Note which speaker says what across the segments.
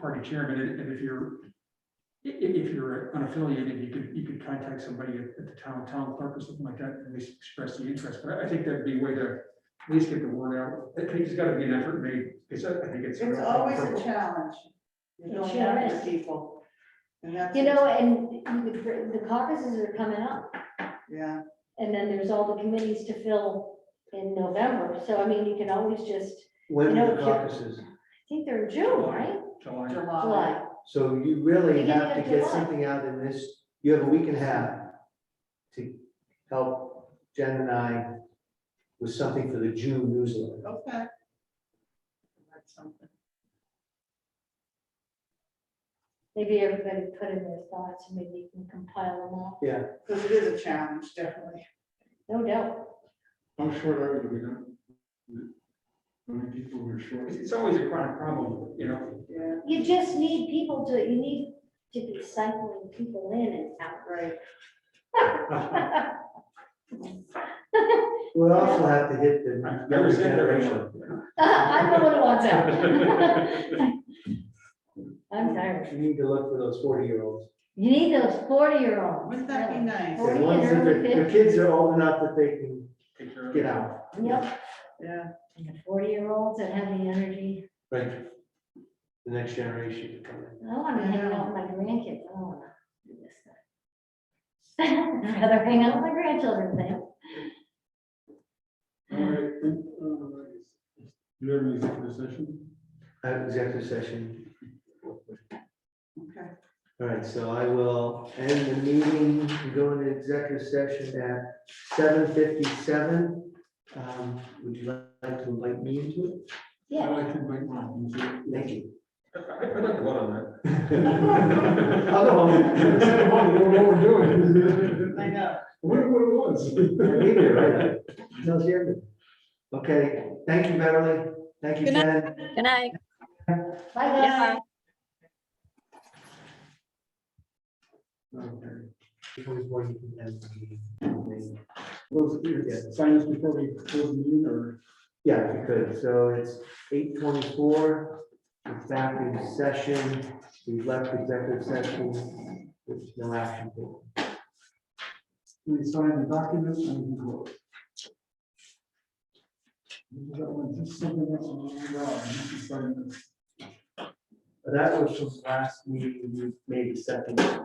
Speaker 1: party chairman, and and if you're, i- i- if you're unaffiliated, you could, you could contact somebody at at the town, town clerk or something like that, and at least express the interest, but I- I think that'd be a way to at least get the word out, I think it's gotta be an effort made, because I I think it's.
Speaker 2: It's always a challenge. You're
Speaker 3: It
Speaker 2: going
Speaker 3: sure
Speaker 2: after
Speaker 3: is.
Speaker 2: people. And that's-
Speaker 3: You know, and you could- the caucuses are coming up,
Speaker 2: Yeah,
Speaker 3: and then there's all the committees to fill in November, so I mean, you can always just,
Speaker 4: When
Speaker 3: You know,
Speaker 4: are the caucuses,
Speaker 3: I think they're in June, right?
Speaker 1: July,
Speaker 2: July.
Speaker 3: July,
Speaker 4: so you really
Speaker 3: Beginning
Speaker 4: have to
Speaker 3: of
Speaker 4: get
Speaker 3: July.
Speaker 4: something out in this, you have a week and a half to help Jen and I with something for the June newsletter.
Speaker 2: Okay. That's something.
Speaker 3: maybe everybody put in their thoughts, and maybe you can compile them all,
Speaker 2: Because it is a challenge, definitely.
Speaker 3: no doubt.
Speaker 5: How short are we, do we know? How many people were short?
Speaker 1: it's it's always a chronic problem, you know,
Speaker 2: Yeah,
Speaker 3: You just need people to, you need to be cycling people in and out.
Speaker 2: right.
Speaker 4: We'll also have to hit the
Speaker 1: I've never
Speaker 4: younger
Speaker 1: said there
Speaker 4: generation.
Speaker 1: anyone.
Speaker 3: I'm the one who wants out. I'm tired.
Speaker 4: You need to look for those forty-year-olds.
Speaker 3: You need those forty-year-olds.
Speaker 2: Wouldn't that be nice?
Speaker 3: Forty
Speaker 4: The
Speaker 3: and
Speaker 4: ones that
Speaker 3: early
Speaker 4: their, their kids are old enough that they can
Speaker 1: Take care of
Speaker 4: get
Speaker 1: it.
Speaker 4: out.
Speaker 3: Yep,
Speaker 2: Yeah.
Speaker 3: and the forty-year-olds that have the energy,
Speaker 4: Right. The next generation to come in.
Speaker 3: I wanna hang out with my grandkids, I don't wanna do this stuff. I'd rather hang out with my grandchildren than.
Speaker 5: All right, uh, You have any executive session?
Speaker 4: I have executive session.
Speaker 2: Okay.
Speaker 4: All right, so I will end the meeting, and go into executive session at seven fifty-seven. Um, would you like to invite me into it?
Speaker 5: I
Speaker 3: Yeah,
Speaker 5: like to invite Martin. so-
Speaker 4: Thank you.
Speaker 1: I- I'd like to vote on that.
Speaker 4: I'll go home.
Speaker 5: I don't know what we're doing.
Speaker 2: I
Speaker 5: I
Speaker 2: know.
Speaker 5: wonder what it was.
Speaker 4: Yeah, me too, right? No, seriously. Okay, thank you, Beverly. Thank you,
Speaker 6: Good night.
Speaker 4: Jen.
Speaker 6: Good night.
Speaker 3: bye guys.
Speaker 4: Okay. Before we end the meeting.
Speaker 5: Well, it's- Sign this before we close the meeting or?
Speaker 4: Yeah, if you could, so it's eight twenty-four, executive session, we've left executive session, there's no action. taken.
Speaker 5: We sign the document and we go. That one, just something that's on the wall, and you can sign this.
Speaker 4: But That was from last meeting, we made a second. decision.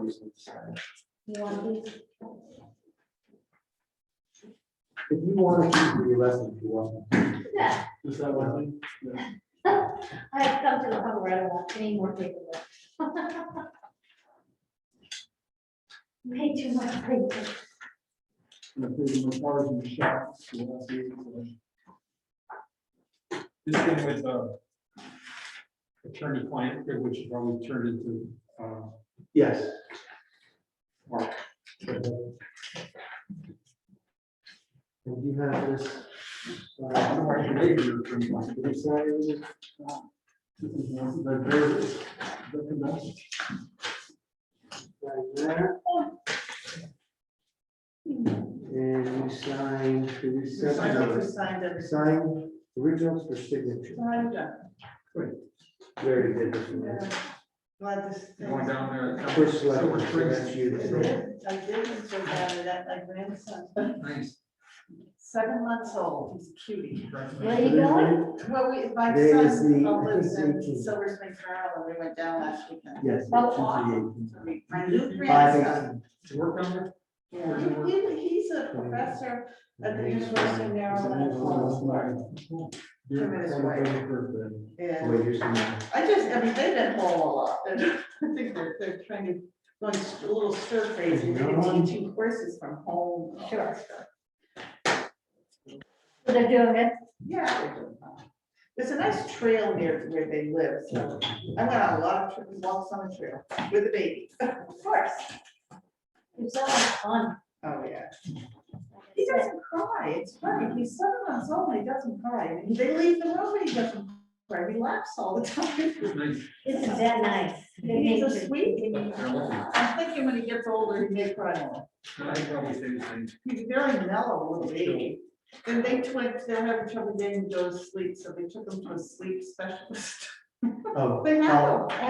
Speaker 3: You want these?
Speaker 4: If you want to keep your lesson, if you want.
Speaker 3: Yeah,
Speaker 5: Just that one thing?
Speaker 3: I have come to the point where I don't want any more paperwork. Way too much paper.
Speaker 5: And if there's no cars in the shop, so that's it, so.
Speaker 1: This thing with, uh, attorney client, which probably turned into, uh,
Speaker 4: Yes.
Speaker 1: Mark. uh,
Speaker 4: And you have this,
Speaker 5: Uh, I don't know why you made your attorney client, but it's, uh, it was, uh, this is one of The various- the convention.
Speaker 4: right there. And you sign for this.
Speaker 2: I like to
Speaker 4: section.
Speaker 2: sign that.
Speaker 4: Sign originals for signature.
Speaker 2: I'm done.
Speaker 4: Very good. Mr. Mayor.
Speaker 2: Yeah. Glad this.
Speaker 1: going down there.
Speaker 4: First
Speaker 1: Silver
Speaker 4: letter,
Speaker 1: Springs.
Speaker 4: that's you.
Speaker 2: I did, I did, and so bad that my grandson,
Speaker 1: Nice.
Speaker 2: seven months old, he's a cutie.
Speaker 3: Where
Speaker 1: Congratulations.
Speaker 3: are you going?
Speaker 2: Well, we, my
Speaker 4: Today
Speaker 2: son
Speaker 4: is the-
Speaker 2: uh, lives
Speaker 4: I think it's
Speaker 2: in
Speaker 4: the-
Speaker 2: Silver Springs, Maryland, we went down last weekend.
Speaker 4: Yes.
Speaker 3: Oh,
Speaker 4: it's
Speaker 2: awesome. So we- My new
Speaker 4: 58. Five
Speaker 2: grandson,
Speaker 1: Did you work down there?
Speaker 2: yeah, he- he- he's a professor at the University of Maryland.
Speaker 5: Dear
Speaker 2: Tremendous
Speaker 5: Father,
Speaker 2: way.
Speaker 5: thank you for that.
Speaker 2: Yeah,
Speaker 4: Wait, here's the-
Speaker 2: I just, I mean, they've been home a lot, They're- I think they're, they're trying to, going a little stir crazy, they're teaching courses from home. and all that
Speaker 3: Sure.
Speaker 2: stuff.
Speaker 3: They're doing it.
Speaker 2: Yeah. they're doing fine. There's a nice trail near where they live, so I went on a lot of trips, walks on the trail with the baby, of course.
Speaker 3: It's so much fun.
Speaker 2: Oh, yeah. He doesn't cry, it's funny, he's seven months old, and he doesn't cry, they leave the room and he doesn't cry, he laughs all the time.
Speaker 1: Nice.
Speaker 3: Isn't that nice?
Speaker 2: He's a sweetie.
Speaker 1: They're lovely.
Speaker 2: I'm thinking when he gets older, he may cry more.
Speaker 1: I probably say the same.
Speaker 2: He's a very mellow little baby. And they twins, they're having trouble getting to go to sleep, so they took him to a sleep specialist.
Speaker 4: Oh.
Speaker 2: They
Speaker 4: oh.
Speaker 2: have him.